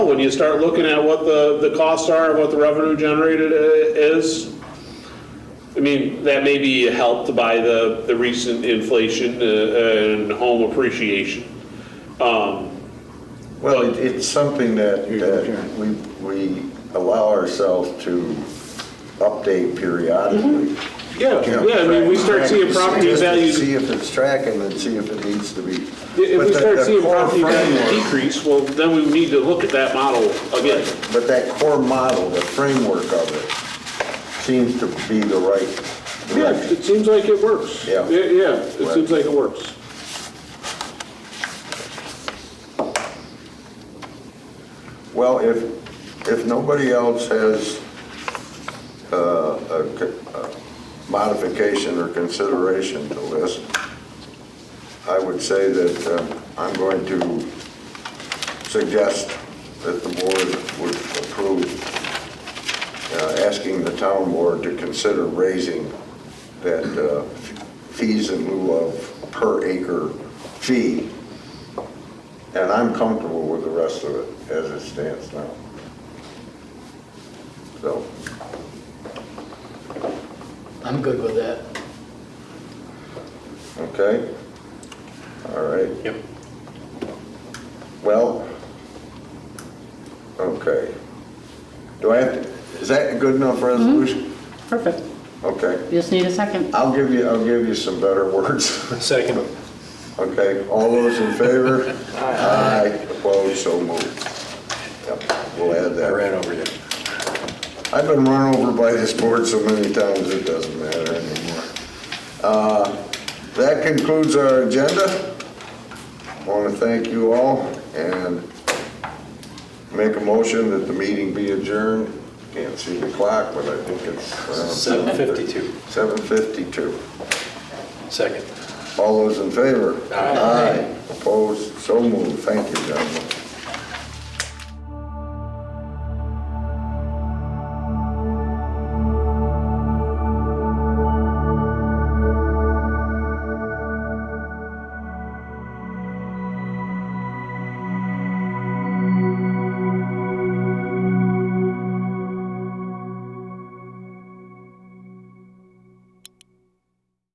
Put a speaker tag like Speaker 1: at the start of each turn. Speaker 1: When you start looking at what the, the costs are, and what the revenue generated i- is, I mean, that may be helped by the, the recent inflation uh, and home appreciation.
Speaker 2: Well, it- it's something that,
Speaker 3: Here you go,
Speaker 2: that
Speaker 3: Karen.
Speaker 2: we, we allow ourselves to update periodically.
Speaker 3: Mm-hmm.
Speaker 1: Yeah,
Speaker 2: You know,
Speaker 1: yeah, I mean, we start
Speaker 2: track-
Speaker 1: seeing property
Speaker 2: see if-
Speaker 1: values,
Speaker 2: See if it's tracking and see if it needs to be.
Speaker 1: if
Speaker 2: But
Speaker 1: we
Speaker 2: the-
Speaker 1: start
Speaker 2: the
Speaker 1: seeing
Speaker 2: core
Speaker 1: property values
Speaker 2: framework-
Speaker 1: decrease, well, then we need to look at that model again.
Speaker 2: But that core model, the framework of it, seems to be the right
Speaker 1: Yeah,
Speaker 2: direction.
Speaker 1: it seems like it works.
Speaker 2: Yeah.
Speaker 1: Yeah, yeah, it seems like it works.
Speaker 2: Well, if, if nobody else has uh, a c- a modification or consideration to this, I would say that uh, I'm going to suggest that the board would approve uh, asking the town board to consider raising that uh, fees in lieu of per acre fee and I'm comfortable with the rest of it as it stands now. So,
Speaker 4: I'm good with that.
Speaker 2: okay? All right.
Speaker 1: Yep.
Speaker 2: Well, okay. Do I have, to- is that a good enough resolution?
Speaker 5: Perfect.
Speaker 2: Okay.
Speaker 5: You just need a second.
Speaker 2: I'll give you, I'll give you some better words.
Speaker 6: Second.
Speaker 2: Okay, all those in favor? Aye. Opposed, so moved. Yep, We'll add
Speaker 3: I
Speaker 2: that.
Speaker 3: ran over you.
Speaker 2: I've been run over by this board so many times, it doesn't matter anymore. Uh, That concludes our agenda. I want to thank you all and make a motion that the meeting be adjourned. Can't see the clock, but I think it's around
Speaker 3: 7:52.
Speaker 2: 7:52.
Speaker 3: Second.
Speaker 2: All those in favor? Aye. Opposed? So moved. Thank you, gentlemen.